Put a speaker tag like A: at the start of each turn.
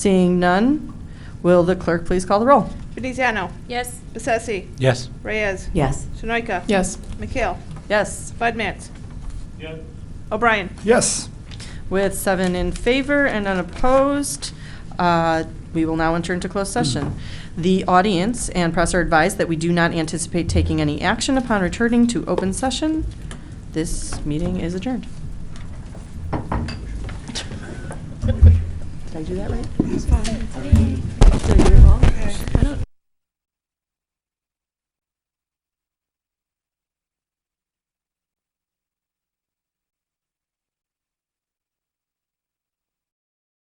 A: Seeing none, will the clerk please call the roll?
B: Veneziano.
C: Yes.
B: Bessesi.
D: Yes.
B: Reyes.
A: Yes.
B: Sunoika.
E: Yes.
B: McHale.
A: Yes,
B: Budmats.
D: Yes.
B: O'Brien.
E: Yes.
A: with seven in favor and unopposed, uh, we will now enter into closed session. The audience and press are advised that we do not anticipate taking any action upon returning to open session. This meeting is adjourned. Did I do that right?
C: Did I do it wrong? I don't